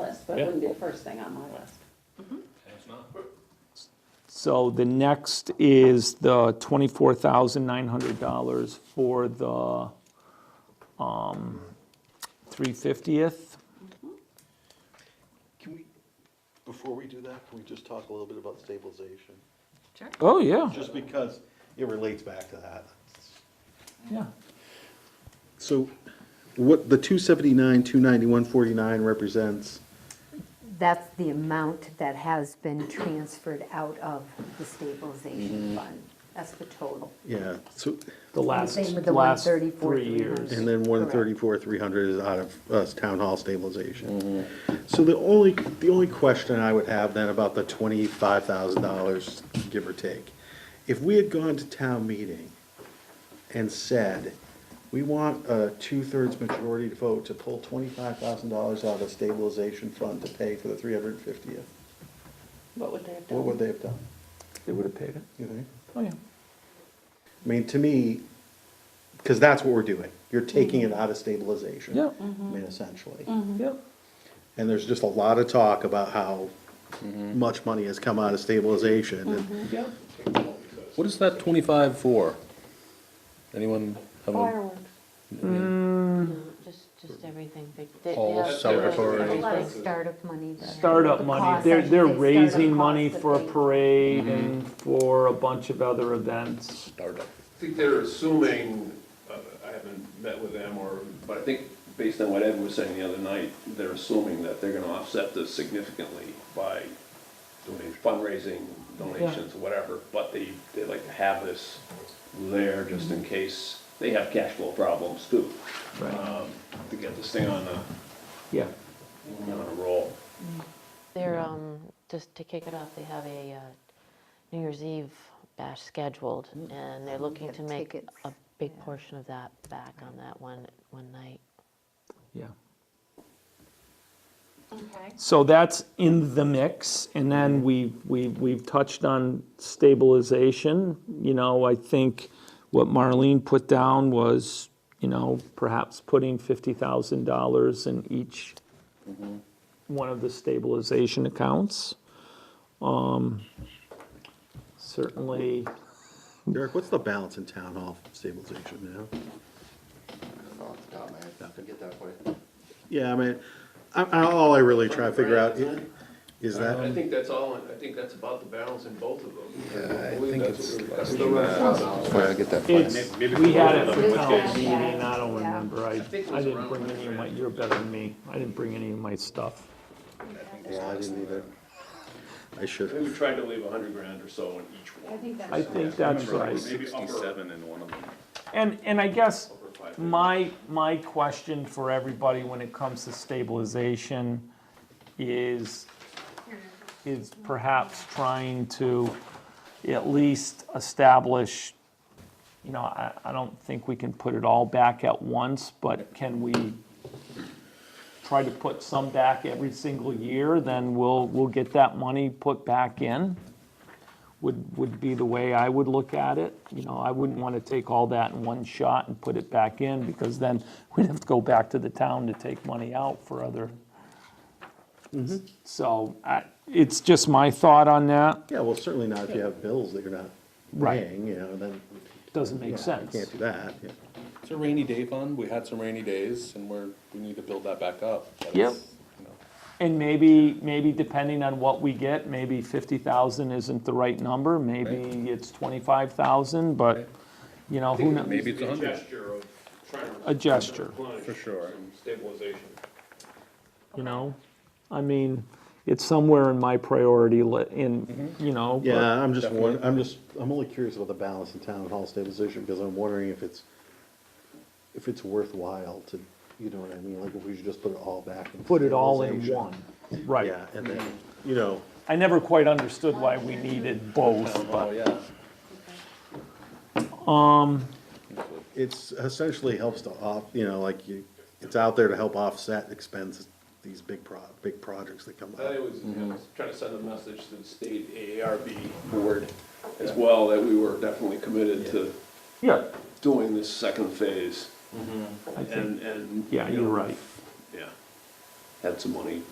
so it Yeah. wouldn't be the first thing on my list. It's not. So the next is the twenty-four thousand nine hundred dollars for the um, three fiftieth. Can we, before we do that, can we just talk a little bit about stabilization? Sure. Oh, yeah, Just because it relates back to that. yeah. So what, the two seventy-nine, two ninety-one, forty-nine represents? That's the amount that has been transferred out of the stabilization fund. That's the total. Yeah, so, The last, Same with the last 134, three years. 300. and then one Correct. thirty-four, three hundred is out of, uh, town hall stabilization. So the only, the only question I would have then about the twenty-five thousand dollars, give or take. If we had gone to town meeting and said, we want a two-thirds majority vote to pull twenty-five thousand dollars out of stabilization fund to pay for the three hundred and fiftieth, What would they have done? what would they have done, They would have paid it. you think? Oh, yeah. I mean, to me, because that's what we're doing. You're taking it out of stabilization. Yeah. I mean, essentially. Mm-hmm. Yeah. And there's just a lot of talk about how much money has come out of stabilization. And Yeah. What is that twenty-five for? Anyone have a? Fireworks, Just, just everything, they, they. All they have- celebratory. There's a lot of Everything. startup money. there. Startup The money, costs, they're, I should they're say, startup raising money costs that for a they- parade and for a bunch of other events. Startup. I think they're assuming, uh, I haven't met with them or, but I think based on what Ed was saying the other night, they're assuming that they're gonna offset this significantly by doing fundraising, donations, whatever, but they, they like to have this there just Mm-hmm. in case they have cash flow problems too, Right. um, to get this thing on a, Yeah. on a roll. They're, um, just to kick it off, they have a, uh, New Year's Eve bash scheduled, and they're looking Get to make Mm. tickets, a big yeah. portion of that back on that one, one night. Yeah. Okay. So that's in the mix, and then we've, we've, we've touched on stabilization. You know, I think what Marlene put down was, you know, perhaps putting fifty thousand dollars in each one of the stabilization accounts. Um, Certainly, Derek, what's the balance in town hall stabilization now? off the top of my head, I can get that for you. Yeah, I mean, I, I, all I really try to figure out i- is I that, think that's all, I think that's about the balance in both of them. Um, Yeah, I believe think that's it's. what we're- like, that's what we're- uh, where I get that for you. it's, we had it for Maybe- town meeting, I don't Yeah. remember, I, think it I was didn't around bring any of my, you're better than me, I didn't bring any of my stuff. yeah, I didn't either. I should I think we have. tried to leave a hundred grand or so in each one. I think that's right. Maybe upper, in one of them. And, and I guess upper five. my, my question for everybody when it comes to stabilization is, is perhaps trying to at least establish, you know, I, I don't think we can put it all back at once, but can we try to put some back every single year, then we'll, we'll get that money put back in? would, would be the way I would look at it. You know, I wouldn't want to take all that in one shot and put it back in, because then we'd have to go back to the town to take money out for other. So I, it's just my thought on that, Yeah, well, certainly not if you have bills that you're not Right. paying, you know, then. doesn't make yeah, you sense. Can't do that, yeah. It's a rainy day fund. We had some rainy days and we're, we need to build that back up. But Yep. it's, you know, And maybe, maybe depending on what we get, maybe fifty thousand isn't the right number, maybe it's twenty-five thousand, but, Right. you know, who knows? Maybe it's Be a hundred. gesture of trying to. A gesture. For sure. Some Stabilization. You know, I mean, it's somewhere in my priority li, in, you know. but- Yeah, I'm just, won- I'm just, I'm only curious about the balance in town hall stabilization, because I'm wondering if it's, if it's worthwhile to, you know what I mean, like if we should just put it all back. in put it all in stabilization. one. Right. Yeah, and then, you know, I never quite understood why we needed both, Oh, but, yeah. it's essentially helps to off, you know, like you, it's out there to help offset expenses, these big pro, big projects that come I up. was, you Mm-hmm. know, trying to send a message to the state AARB board as well, that we were definitely committed to yeah, doing this second phase. I think, Mm-hmm. And, and. yeah, you you're know, right. Yeah. Had some money